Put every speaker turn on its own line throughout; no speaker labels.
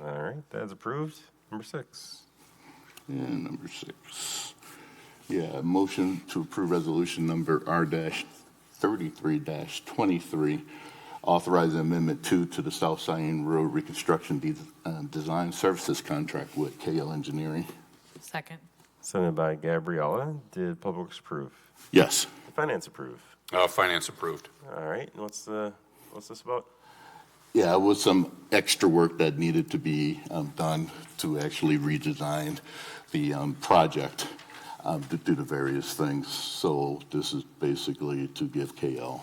right, that's approved. Number six.
And number six. Yeah, motion to approve resolution number R dash thirty-three dash twenty-three, authorizing amendment two to the South Scion Road Reconstruction De- uh, Design Services Contract with KL Engineering.
Second.
Sent by Gabriella. Did Public Works approve?
Yes.
Did Finance approve?
Uh, Finance approved.
All right, and what's the, what's this about?
Yeah, it was some extra work that needed to be um, done to actually redesign the um, project um, to do the various things. So this is basically to give KL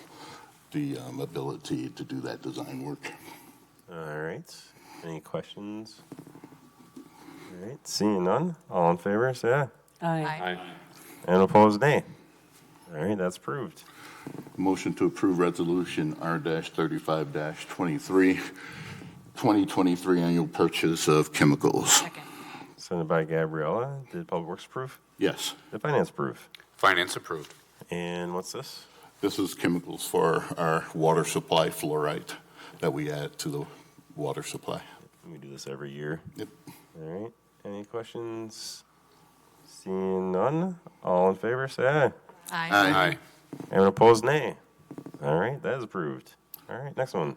the um, ability to do that design work.
All right, any questions? All right, seeing none, all in favor, say aye.
Aye.
And opposed, nay. All right, that's approved.
Motion to approve resolution R-35-23, 2023 annual purchase of chemicals.
Second.
Sent by Gabriella. Did Public Works approve?
Yes.
Did Finance approve?
Finance approved.
And what's this?
This is chemicals for our water supply fluoride that we add to the water supply.
We do this every year.
Yep.
All right. Any questions? Seeing none, all in favor, say aye.
Aye.
Aye.
Anyone opposed, nay. All right, that is approved. All right, next one.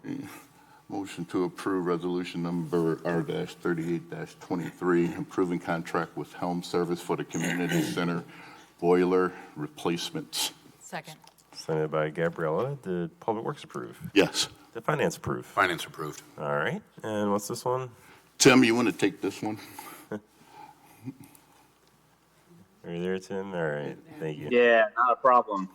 Motion to approve resolution number R-38-23, approving contract with Helm Service for the community center boiler replacements.
Second.
Sent by Gabriella. Did Public Works approve?
Yes.
Did Finance approve?
Finance approved.
All right. And what's this one?
Tim, you want to take this one?
Are you there, Tim? All right. Thank you.
Yeah, not a problem.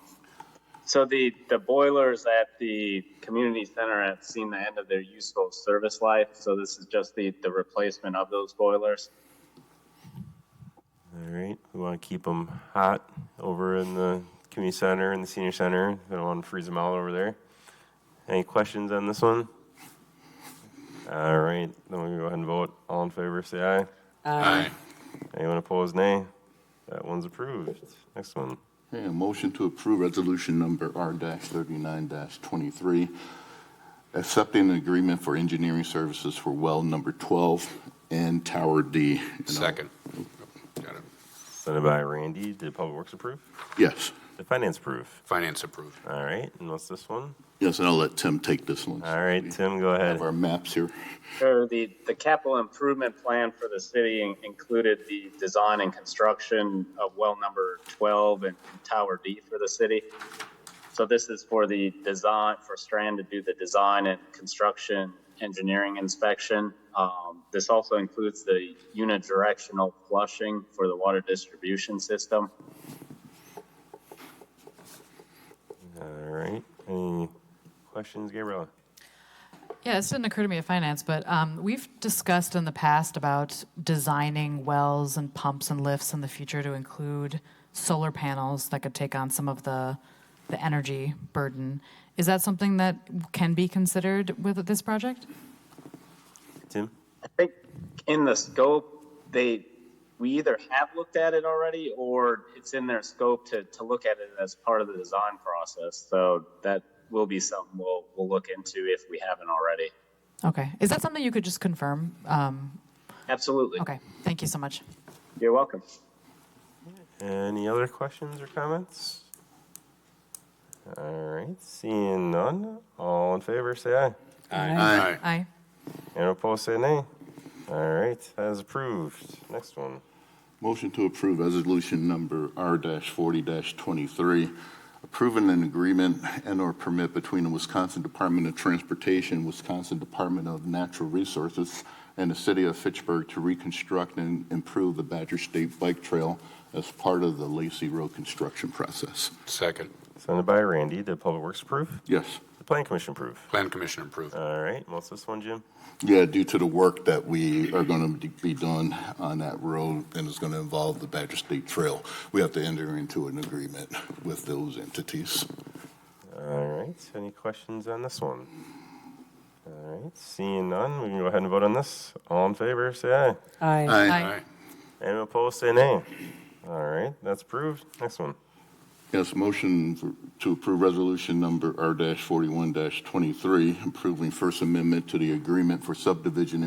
So the, the boilers at the community center have seen the end of their useful service life. So this is just the, the replacement of those boilers.
All right. We want to keep them hot over in the community center and the senior center. We don't want to freeze them out over there. Any questions on this one? All right. Then we'll go ahead and vote. All in favor, say aye.
Aye.
Anyone opposed, nay. That one's approved. Next one.
Okay, a motion to approve resolution number R-39-23, accepting an agreement for engineering services for well number 12 and Tower D. And I'll-
Second. Got it.
Sent by Randy. Did Public Works approve?
Yes,
Did Finance approve?
Finance approved.
All right. And what's this one?
yes, and I'll let Tim take this one.
All right, Tim, go
Have
ahead.
our maps here.
Sure, the, the capital improvement plan for the city in- included the design and construction of well number 12 and Tower D for the city. So this is for the design, for Strand to do the design and construction engineering inspection. Um, This also includes the unidirectional flushing for the water distribution system.
All right. Any questions, Gabriella?
Yeah, this didn't occur to me at finance, but um, we've discussed in the past about designing wells and pumps and lifts in the future to include solar panels that could take on some of the, the energy burden. Is that something that can be considered with this project?
Tim?
I think in the scope, they, we either have looked at it already or it's in their scope to, to look at it as part of the design process. So that will be something we'll, we'll look into if we haven't already.
Okay. Is that something you could just confirm? Um,
Absolutely.
okay. Thank you so much.
You're welcome.
Any other questions or comments? All right, seeing none, all in favor, say aye.
Aye.
Aye.
Anyone opposed, say nay. All right, that is approved. Next one.
Motion to approve resolution number R-40-23, approving an agreement and/or permit between the Wisconsin Department of Transportation, Wisconsin Department of Natural Resources, and the city of Fitchburg to reconstruct and improve the Badger State Bike Trail as part of the Lacey Road construction process.
Second.
Sent by Randy. Did Public Works approve?
Yes.
The Plan Commission approve?
Plan Commission approved.
All right, what's this one, Jim?
Yeah, due to the work that we are going to be doing on that road, and it's going to involve the Badger State Trail, we have to enter into an agreement with those entities.
All right, any questions on this one? All right, seeing none, we can go ahead and vote on this. All in favor, say aye.
Aye.
Aye.
Anyone opposed, say nay. All right, that's approved. Next one.
Yes, motion for- to approve resolution number R-41-23, approving First Amendment to the agreement for subdivision